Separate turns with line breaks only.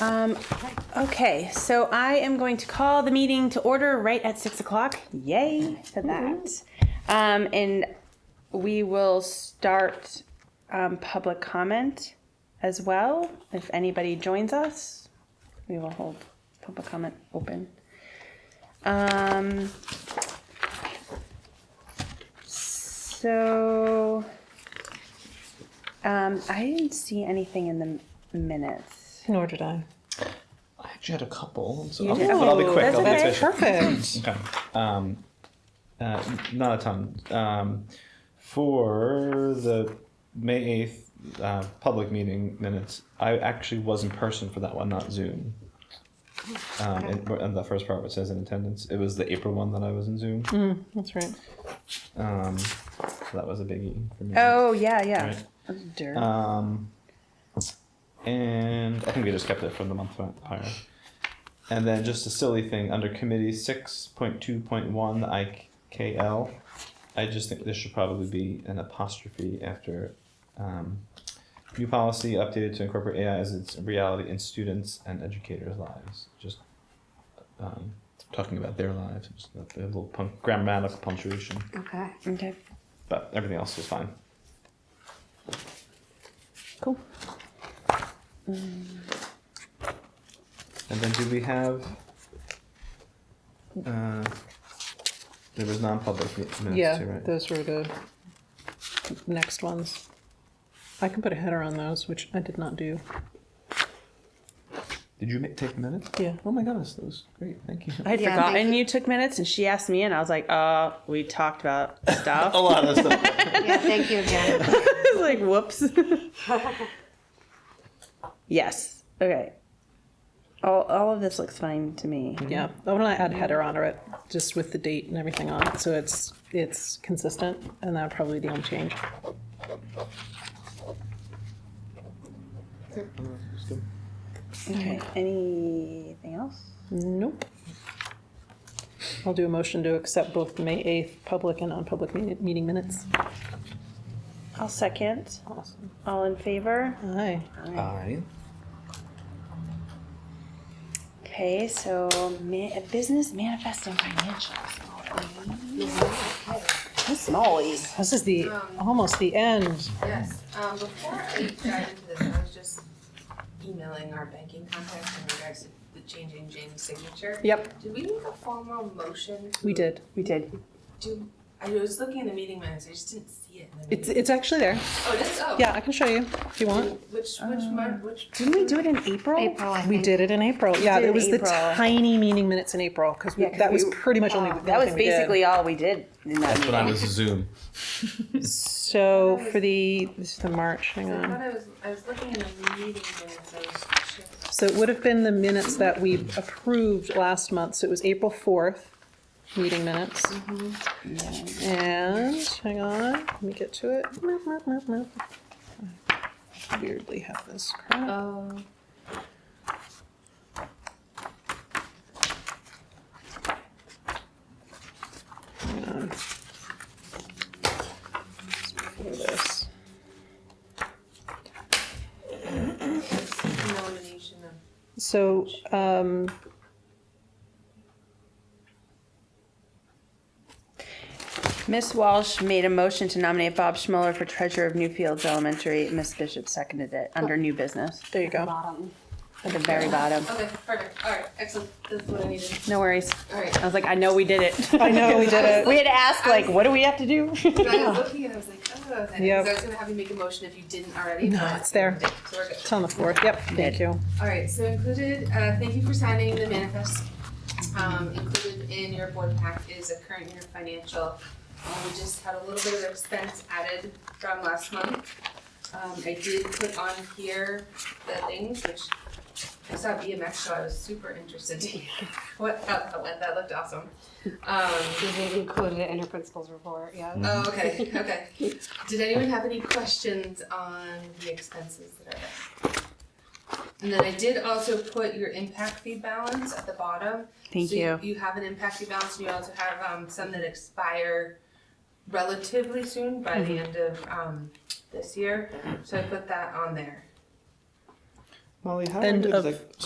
Um, okay, so I am going to call the meeting to order right at six o'clock. Yay for that. Um, and we will start, um, public comment as well. If anybody joins us, we will hold public comment open. Um, so, um, I didn't see anything in the minutes.
Nor did I.
I actually had a couple, so
You
I'll,
did?
but I'll be
Oh,
quick.
that's
I'll
okay.
be efficient.
Perfect.
Okay. Um, uh, not a ton. Um, for the May 8th uh, public meeting minutes, I actually was in person for that one, not Zoom. Um, and, and the first part where it says in attendance, it was the April one that I was in Zoom.
Hmm.
That's right.
Um, so that was a biggie for me.
Oh yeah, yeah.
Mm-hmm. Right.
Dirt.
Um, and I think we just kept it from the month prior. And then just a silly thing under committee six point two point one IKL. I just think there should probably be an apostrophe after um, new policy updated to incorporate AI as its reality in students and educators' lives. Just um, talking about their lives, just a little punk- grammatical punctuation,
Okay.
okay.
but everything else was fine.
Cool.
And then do we have? Uh, there was non-public mi- minutes too,
Yeah,
right?
those were the next ones. I can put a header on those, which I did not do.
Did you make, take minutes?
Yeah.
Oh my goodness, that was great. Thank you.
I had
Yeah,
forgotten
thank
you. took minutes, and she asked me, and I was like, "Uh, we talked about stuff."
a
I
lot of stuff.
Yeah, thank you, Jen.
Oh.
was like, "Whoops." yes. Okay. All, all of this looks fine to me.
Yeah, I want to add header on it, just with the date and everything on it, so it's, it's consistent, and that would probably be the only change.
Okay. Anything else?
Nope. I'll do a motion to accept both the May 8th public and non-public me- meeting minutes.
I'll second.
Awesome.
All in favor?
Aye.
Aye.
Okay. So, ma- business manifest and financials. Smallies.
This is the, almost the end.
Yes, um, before I dive into this, I was just emailing our banking contacts in regards to the changing James' signature.
Yep,
Did we make a formal motion? to-
we did.
We did.
Do, I was looking at the meeting minutes, I just didn't see it in the
It's,
meeting.
it's actually there.
Oh, this, oh.
Yeah, Uh, I can show you if you want.
Which, which month, which?
Didn't we do it in April?
April, I think.
We did it in April. Yeah,
did
it
in
was the
April.
tiny meeting minutes in April because
Yeah, 'cause
that was
we- Oh,
pretty much only the
That was
only thing we did.
basically all we did in that
That's
meeting.
when I was Zoom.
So for the this is the March. Hang
I
on.
thought I was, I was looking in the meeting minutes, I was just.
So it would have been the minutes that we approved last month. So it was April fourth meeting minutes.
Mm-hmm.
And hang on, let me get to it. Mop, mop, mop, mop. I Weirdly have this crap.
Uh,
Oh.
for this.
Nomination of,
So, um,
Miss Walsh made a motion to nominate Bob Schmuller for treasurer of Newfields Elementary. Miss Bishop seconded it under new business
there you go.
Bottom.
at the very bottom.
okay, perfect, all right, excellent, that's what I needed,
No worries.
all right.
I was like, I know we did it.
I know we did it.
We had asked like, what do we have to do?
But I was looking and I was like, oh, okay.
Yep.
Because I was gonna have you make a motion if you didn't already.
No,
but-
it's there.
So we're good.
It's on the fourth. Yep. Thank you.
All right, so included, uh, thank you for signing the manifest. Um, included in your board pack is a current year financial. Uh, we just had a little bit of expense added from last month. Um, I did put on here the things which I saw BMX, so I was super interested to hear what, how that went, that looked awesome. Um,
She did include it in her principal's report, yeah.
Oh, okay,
Mm-hmm.
okay. Did anyone have any questions on the expenses that are there? And then I did also put your impact fee balance at the bottom.
Thank
So
you.
You have an impact fee balance, and you also have, um, some that expire relatively soon, by
Mm-hmm.
the end of, um, this year. So I put that on there.
Molly, how
End
did
of
like